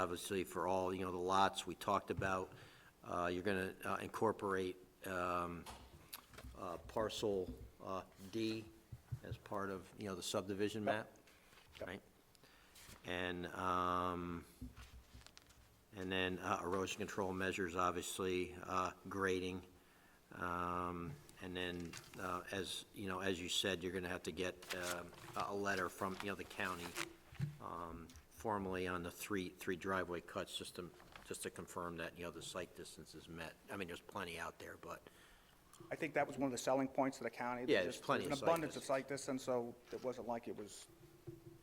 obviously for all, you know, the lots we talked about. Uh, You're going to incorporate um, uh, parcel uh, D as part of, you know, the subdivision map, right? And, um, and then uh, erosion control measures, obviously, uh, grading. Um, And then, uh, as, you know, as you said, you're going to have to get um, a a letter from, you know, the county um, formally on the three, three driveway cuts, just to, just to confirm that, you know, the site distance is met. I mean, there's plenty out there, but, I think that was one of the selling points of the county. Yeah, There's there's just- plenty of There's site an abundance of distance. site distance, so it wasn't like it was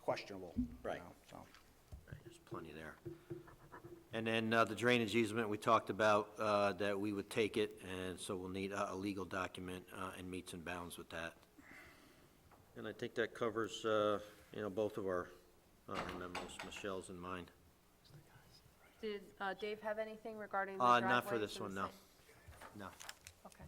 questionable, you Right. know, so. Right, There's plenty there. And then uh, the drainage easement, we talked about uh, that we would take it, and so we'll need a a legal document uh, and meets and bounds with that. And I think that covers, uh, you know, both of our uh, memos, Michelle's and mine. Did uh, Dave have anything regarding the Uh, driveway? Not for to this the one, no. site? No. Okay.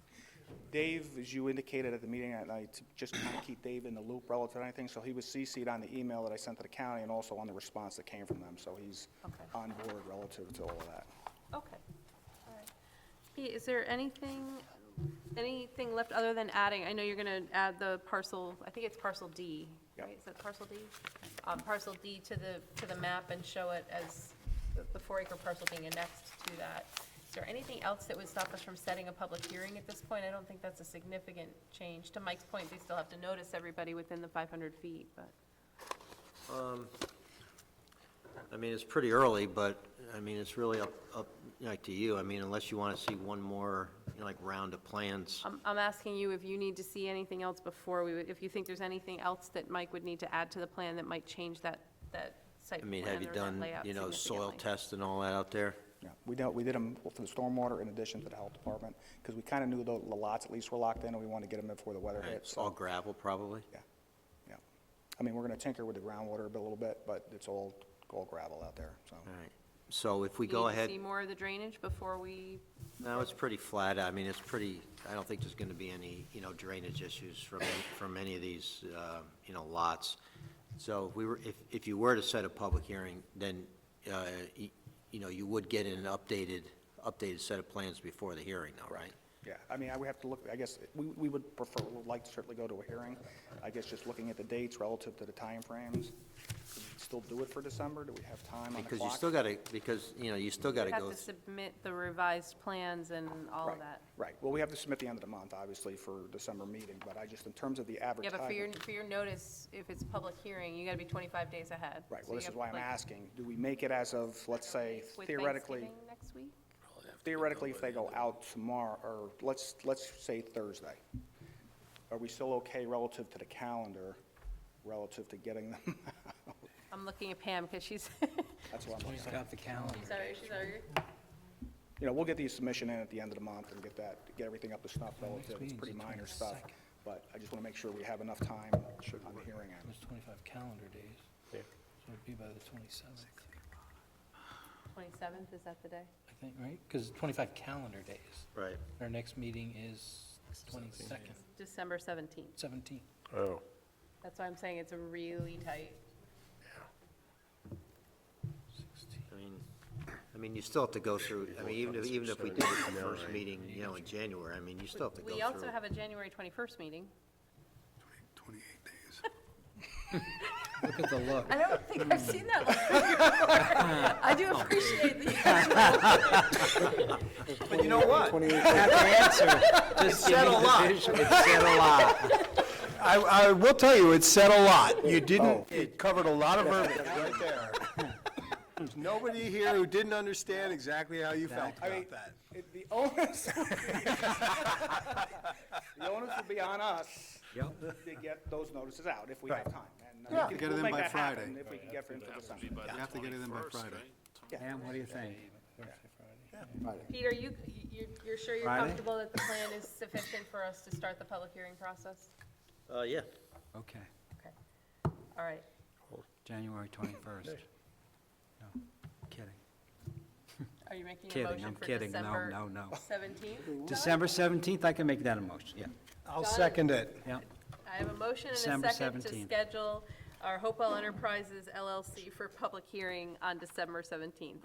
Dave, as you indicated at the meeting at night, to just kind of keep Dave in the loop relative to anything, so he was CC'd on the email that I sent to the county and also on the response that came from them, so he's Okay. on board relative to all of that. Okay, all right. Pete, is there anything, anything left other than adding, I know you're gonna add the parcel, I think it's parcel D, Yep. right? Is that parcel D? Um, parcel D to the, to the map and show it as the- the four acre parcel being annexed to that. Is there anything else that would stop us from setting a public hearing at this point? I don't think that's a significant change. To Mike's point, they still have to notice everybody within the five hundred feet, but. I mean, it's pretty early, but, I mean, it's really up, up, like, to you. I mean, unless you want to see one more, you know, like, round of plans. I'm, I'm asking you if you need to see anything else before we, would- if you think there's anything else that Mike would need to add to the plan that might change that, that I site plan mean, have you or that done, layout you know, soil significantly. test and all that out there? Yeah, we don't, we did them for the stormwater in addition to the health department, because we kind of knew the the lots at least were locked in, and we wanted to get them before the weather hit, It's so. all gravel, probably? Yeah, yeah. I mean, we're gonna tinker with the groundwater a bit- little bit, but it's all, all gravel out there, so. All right, so if we Do you go need to ahead, See more of the drainage before we, no, it's pretty flat, I mean, it's pretty, I don't think there's gonna be any, you know, drainage issues from, any- from any of these, uh, you know, lots. So if we were, if, if you were to set a public hearing, then, uh, y- you know, you would get an updated, updated set of plans before the hearing though, right? Yeah, I mean, I would have to look, I guess, we, we would prefer, would like to certainly go to a hearing. I guess just looking at the dates relative to the timeframes, can we still do it for December? Do we have time on the Because you clock? still gotta, because, you know, you still we gotta have go, to submit the revised plans and all Right, of that? Right, well, we have to submit the end of the month, obviously, for December meeting, but I just, in terms of the Yeah, but for your, advertising. for your notice, if it's public hearing, you gotta be twenty-five days ahead. Right, So you well, this is have, why I'm like, asking, do we make it as of, let's say with theoretically, Thanksgiving Next week? theoretically, if they go out tomorrow, or let's, let's say Thursday, are we still okay relative to the calendar, relative to getting them? I'm looking at Pam, because she's, That's what I'm looking at. Got the calendar. she's already, she's already. you know, we'll get the submission in at the end of the month and get that, get everything up to snuff relative, it's meeting's pretty the minor stuff. 22nd. But I just want to make sure we have enough time on the hearing end. There's 25 calendar days. So it'd be by the 27th, Twenty-seventh, is that the day? I think, right? Because 25 calendar days. right, Our next meeting is 22nd, December seventeenth. 17th. Oh, That's why I'm saying it's really tight. 16th. I mean, I mean, you still have to go through, I mean, even if, even if we did it the first meeting, you know, in January, I mean, you still have to go through. We also have a January 21st meeting. 28 days. Look at the look. I don't think I've seen that one before. I do Oh. appreciate the, But you know what? Just Said a lot. It said a lot. I, I will tell you, it said a lot. You didn't, it covered a lot of verbiage right there. There's nobody here who didn't understand exactly how you felt about that. It- The onus, the onus will be on us to get those notices out if we have time. And uh, we can- Get it we'll in make by that happen Friday. If we can get it in for December. You have to get it in by Friday. Pam, what do you think? Peter, you, you're, you're sure you're Friday? comfortable that the plan is sufficient for us to start the public hearing process? Uh, yeah. Okay, Okay. All right. January 21st. No, kidding, Are you making a kidding, motion I'm for kidding, no, December no, no. 17th? December 17th, I can make that a motion, yeah, I'll Done. second it. yeah. I have a motion and December a second to 17th. schedule our Hopewell Enterprises LLC for public hearing on December seventeenth.